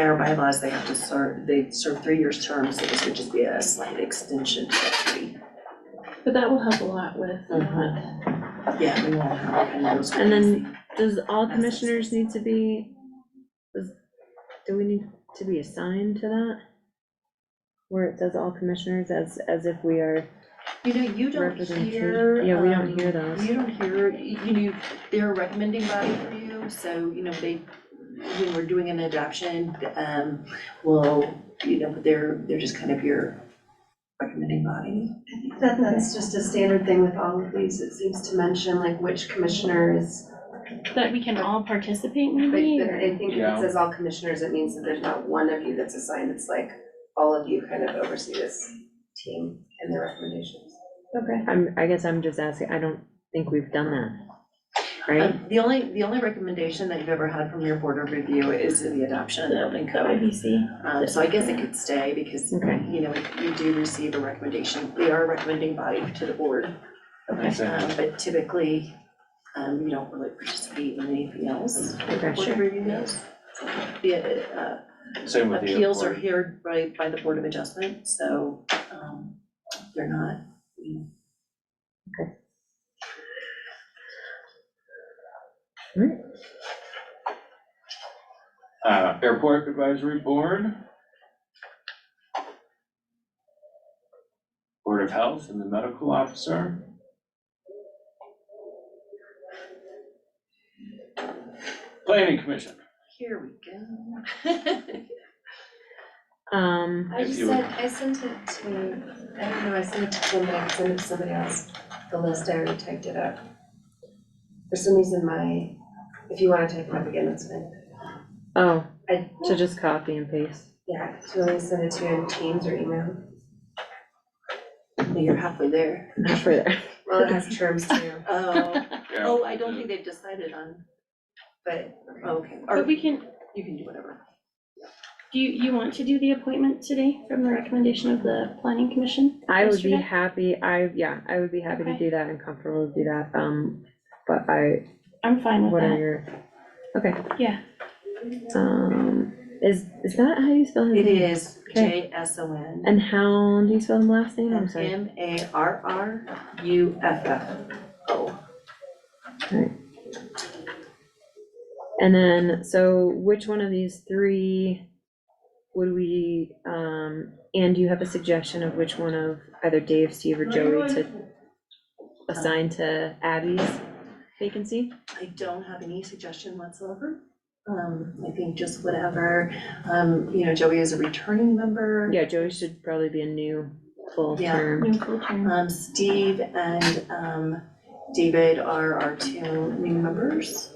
Our bylaws, they have to serve, they serve three years terms, so this would just be a slight extension to three. But that will help a lot with, uh, Mhm. Yeah, we won't have any of those. and then, does all That's- commissioners need to be, does- do we need to be assigned to that? Where it says all commissioners, as, as if we are You know, you don't hear. representation, yeah, we um, don't hear those. You don't hear, you know, they're a recommending body for you, so, you know, they, when we're doing an adoption, um, well, you know, they're, they're just kind of your recommending body. I think that that's just a standard thing with all of these, it seems to mention like which commissioners, That we can all participate but but maybe, or- I think if Yeah. it says all commissioners, it means that there's not one of you that's assigned, it's like all of you kind of oversee this team and their recommendations. Okay. I'm, I guess I'm just asking, I don't think we've done that, right? Um, The only, the only recommendation that you've ever had from your board of review is in the adoption of the building that would code. be C. Um, so I guess it could stay because, Okay. you know, you do receive a recommendation, they are a recommending body to the board. Makes sense. Um, but typically, um, you don't really participate in anything else. Okay, Board sure. review does. The, uh, Same with the appeals are airport. heard by, by the Board of Adjustment, so, um, they're not, you know. Uh, airport advisory board. Board of health and the medical officer. Planning commission. Here we go. Um, I If just you would- sent, I sent it to, I don't know, I sent it to Jim, but I could send it to somebody else, the list, I already typed it up. For some reason, my, if you wanna type it up again, that's fine. oh, I, so just copy and paste. yeah, do you want me to send it to you in Teams or email? You're halfway there. Further. Well, it has terms too, Oh, Yeah, oh, I don't the- think they've decided on, but okay, But or we can, you can do whatever. do you, you want to do the appointment today from the recommendation of the planning commission? I would be yesterday? happy, I, yeah, I would be happy to Okay. do that and comfortable to do that, um, but I, I'm fine with what are that, your, okay. Yeah. Um, is, is that how you spell his It name? is Okay. J S O N. And how do you spell his last name? I'm sorry. M A R R U F F O. And then, so which one of these three would we, um, and do you have a suggestion of which one of either Dave, Steve, or Joey to assign to Abby's vacancy? I don't have any suggestion whatsoever. Um, I think just whatever, um, you know, Joey is a returning member. Yeah, Joey should probably be a new full Yeah. term. new full term. Um, Steve and, um, David are our two new members.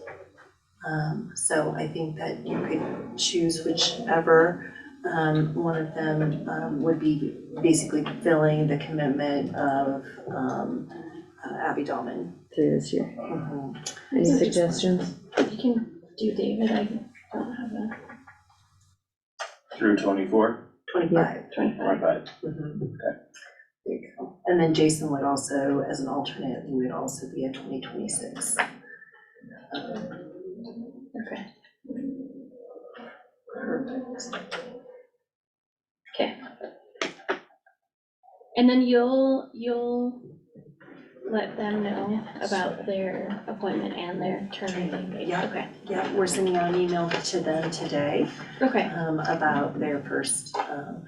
Um, so I think that you could choose whichever, um, one of them, um, would be basically filling the commitment of, um, uh, Abby Dahlman. through this year. Mm-hmm. Any suggestions? You can do David, I don't have a Through twenty-four, Twenty-five. twenty-five. twenty-five. Okay. There you go. And then Jason would also, as an alternate, he would also be a twenty twenty-six. Okay. Perfect. And then you'll, you'll let them know about their appointment and their term, I think. Yeah. Okay, Yeah, we're sending out an email to them today okay. um, about their first um,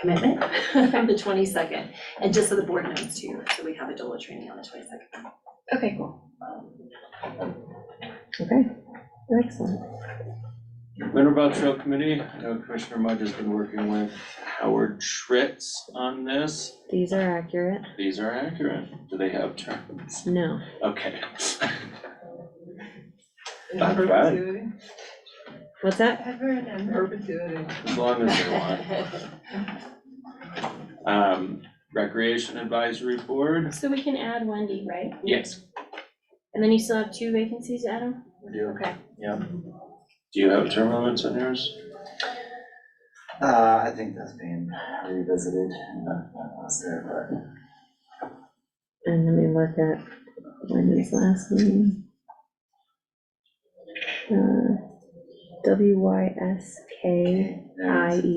commitment on the twenty-second. And just so the board knows too, so we have a DOLA training on the twenty-second. Okay, cool. Okay, excellent. Winterville Trail Committee, I know Commissioner Mudge has been working with Howard Tritz on this. These are accurate. These are accurate. Do they have terms? No. Okay. Not bad, What's that? as long as they want. Um, Recreation Advisory Board? So we can add Wendy, right? Yes. And then you still have two vacancies, Adam? We do. Okay. Do you have term limits on yours? Uh, I think that's being revisited, and that, that was there, but. And let me look at Wendy's last name. Uh, W Y S K I E